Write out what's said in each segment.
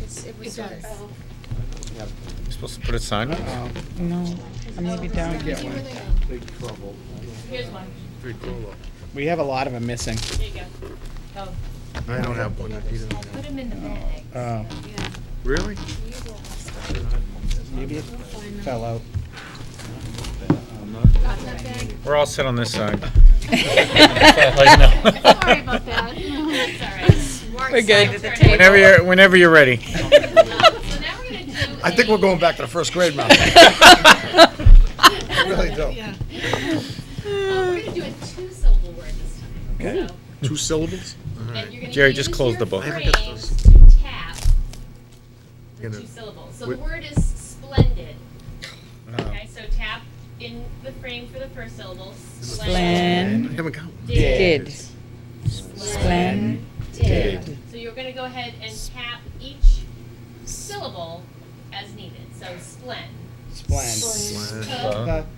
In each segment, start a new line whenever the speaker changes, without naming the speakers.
was, it was
It
sort of.
does.
oh.
You supposed to put a sign?
Uh, No, maybe down.
Did
Get
you
one.
really?
Big trouble.
Here's one.
We have a lot of them missing.
There you go. Oh,
I don't have one.
I put them in the bag. Oh.
Uh,
Yeah.
Really?
You will have stuff.
maybe it fell out.
Got that bag?
We're all set on this side.
Sorry about that.
It's all right.
We're good. At the
Whenever you're, whenever you're ready.
So now we're gonna do.
I think
a-
we're going back to the first grade, Mom. I really do.
uh,
Yeah.
We're gonna do a two-syllable word this time.
Okay.
So,
Two syllables?
And you're gonna
Jerry,
use
just close
your
the book. I
haven't got
phrase to tap the
Gonna-
two syllables. So
Wh-
the word is splendid.
Uh-huh.
No.
Okay, so tap in the frame for the first syllable.
Splendid.
I haven't got one.
Did.
Did.
Splendid.
Splendid.
Did. So you're gonna go ahead and tap each syllable as needed. So splend.
Splend.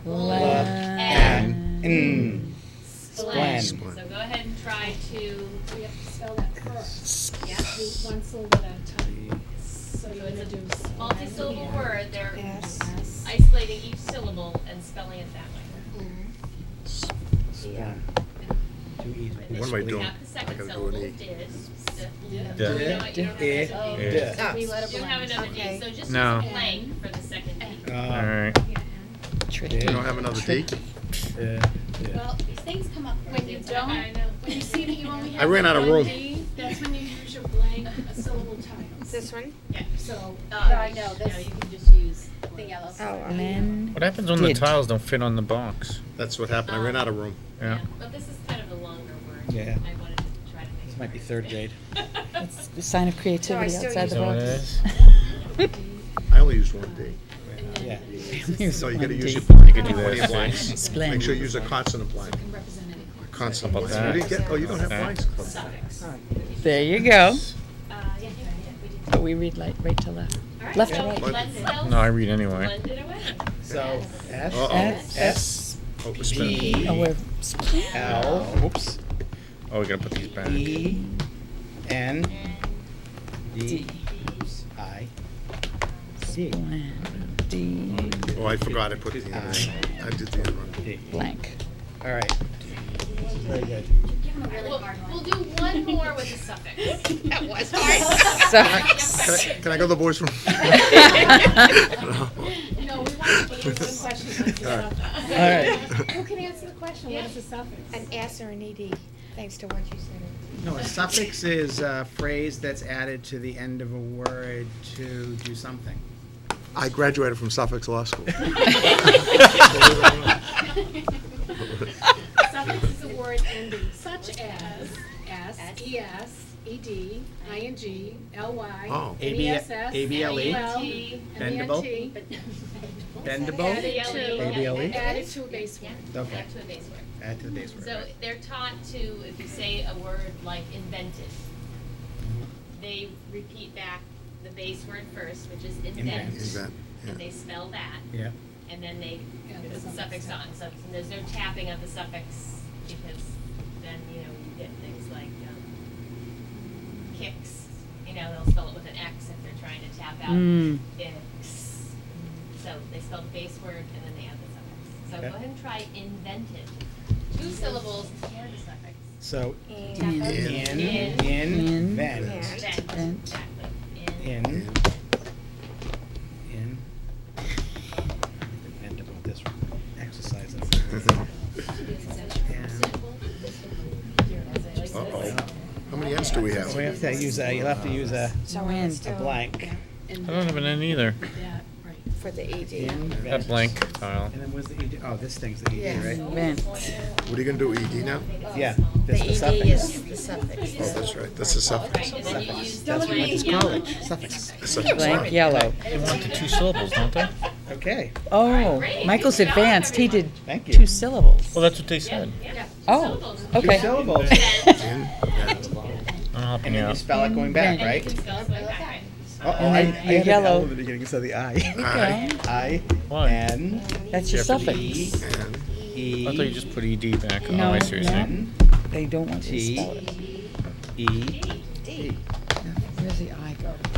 Splend.
And. Mm.
Splend. So
Splend.
go ahead and try to,
We have to spell that first.
yeah.
Do one syllable at a time. So you're gonna do. s-
multi-syllable word, they're
S.
isolating each syllable and spelling it that way.
Splend. Too easy.
What am I doing?
Tap the second
gotta
syllable,
do an E.
did, st- you
Yeah.
know what, you don't have
Eh,
another
Oh,
E.
Yeah.
so we let it
You don't have
blend.
another D,
Okay.
so just use
No.
blank for the second D.
Uh,
All right.
Tricky.
You don't have another D?
yeah.
Well, these things come up when you don't,
I know.
when you see that you only
I
have
ran out of
one
room.
D, that's when you use your blank a syllable tiles.
This one?
So,
Uh,
I know,
No,
that's
you can just use
the yellow.
Splendid.
What happens when the
Did.
tiles don't fit on the box?
That's what happened. I ran out of room.
Yeah.
But this is kind of a longer word.
Yeah.
I wanted to try to make. This
Might be third grade.
That's the sign of creativity
No, I still
outside
Is
the
that what it
box.
is?
I only used one D.
Yeah.
So you gotta use your
Splendid.
You could do
plenty of blanks.
that.
Make sure you
Splendid.
use a consonant blank.
Can represent any color.
Consonant
How about
blank. You didn't
that?
get, oh, you don't have
Okay.
blanks.
Suffix.
There you
Uh,
go.
yeah, yeah, yeah, we did.
But we read like right to left.
All right,
Left
so
or right?
Let's spell
No, I read anyway.
blend it away.
So F
Uh-oh.
S.
S
Oh, it's been-
B
Oh, we're
L oops
Oh, we gotta put these back.
E N D
D.
I C
Splendid. D.
Oh, I forgot. I put the, I did the other one.
D.
Blank.
All right. Very good.
We'll, we'll do one more with a suffix.
That was hard.
Sorry.
Can I- Can I go to the boys' room?
No, we want to answer the question. with the
All right.
All
suffix.
right.
Who can answer the question? What is the suffix?
An S or an ED, thanks to what you said.
No, a suffix is a phrase that's added to the end of a word to do something.
I graduated from Suffolk Law School.
Suffix is a word ending such as S, E, ES, ED, ING, LY,
Oh.
ABL
NESS,
ABLE.
NEL,
E.
E?
E.
Bendable.
NENT,
Bendable?
Added to,
ABLE?
added to a base word.
Okay,
Back to a base word.
add to the base word.
So
right.
they're taught to, if you say a word like invented, they repeat back the base word first, which is invent,
Is that,
and
yeah.
they spell that,
Yeah.
and then they
Yeah,
put
the
the suffix on. So there's no tapping of the suffix because then you know you get things like um, kicks. You know they'll spell it with an X if they're trying to tap out
Mm.
X. So they spell the base word and then they add the suffix. So
Okay.
go ahead and try invented. Two syllables and the suffix.
So
And.
In.
In.
in, in, then,
Yeah.
Invent.
Invent.
Exactly. In.
in, in. Bend about this one. Exercise.
Uh-oh. How many N's do we have?
So we have to use a, you'll have to use a
So in.
a blank.
I don't have an N E. either.
For the E ED.
In,
That
vent.
blank tile.
And then where's the ED? Oh, this thing's the ED,
Yes.
right?
Invent.
What are you gonna do, ED now?
Yeah,
The
that's the E
ED
suffix.
E is the suffix.
Oh, that's right. This is Suffolk.
Right, and then you use the
That's what
blank
it's
yellow.
called, E suffix.
Suffolk Law.
Blank yellow.
They want the two syllables, don't they?
Okay,
Oh,
great.
Michael's
Good job,
advanced. He did
everyone.
thank you.
two syllables.
Well, that's what they said.
Yeah,
Oh,
Two
okay.
syllables.
In,
I'm
And
helping you
then you
out.
spell it going back,
And you
right?
can spell it like that,
Oh, I, I
And
had an
yellow.
L in the beginning, so the I.
Okay.
I,
Why?
N,
That's your
E,
suffix.
and
E.
I thought you just put ED back.
No,
Oh, I see what you're
no.
saying.
N,
They don't want you to
T.
spell it.
E.
Where's the I go?